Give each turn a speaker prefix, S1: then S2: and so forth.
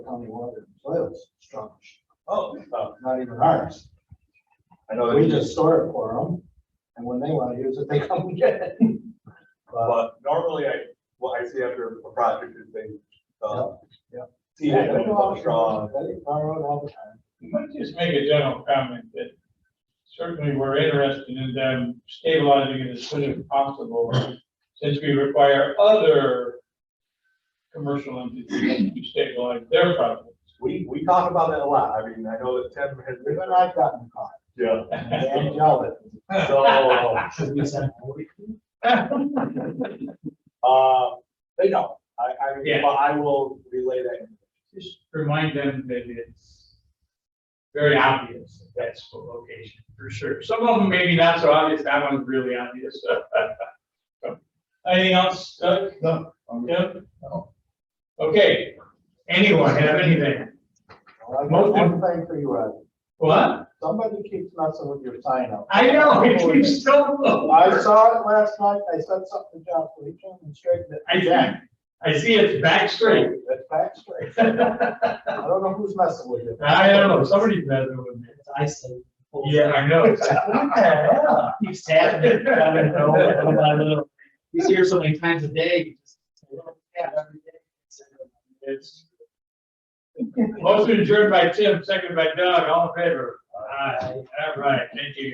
S1: county water and soils structures,
S2: Oh, oh,
S1: not even ours.
S2: I know,
S1: We
S2: that-
S1: just store it for them, and when they wanna use it, they come and get it. But
S2: uh, but normally I, what I see after a project is they, uh,
S1: Yeah,
S2: see it and it's strong.
S1: They borrow it all the time.
S3: Let me just make a general comment that certainly we're interested in them stabilizing it as soon as possible, since we require other commercial entities to stabilize their properties.
S2: We, we talk about that a lot. I mean, I know that Tim has been,
S1: Even I've gotten caught,
S2: yeah,
S1: and yelled
S2: so,
S1: at.
S2: uh, they don't. I, I, mean,
S3: Yeah.
S2: but I will relay that.
S3: Just remind them that it's very obvious that that's the location, for sure. Some of them maybe not so obvious, that one's really obvious. Anything else, Doug?
S4: No.
S3: Yeah? Okay, anyone have anything?
S1: Well, I got
S3: Most
S1: one thing for you, Ed,
S3: What?
S1: somebody keeps messing with your sign up.
S3: I know, it keeps so low.
S1: I saw it last night, I said something to John Felicia and straightened it.
S3: I see, I see it's back straight.
S1: That's back straight.
S3: I
S1: I don't know who's messing with you.
S3: don't know, somebody's messing with me.
S5: I say. well,
S3: Yeah, I know.
S5: What the hell? Keeps happening. I don't know, little by little. He's here so many times a day. you just- Yeah, every day.
S3: It's- Motion adjourned by Tim, second by Doug, all in favor? Aye, all right, thank you.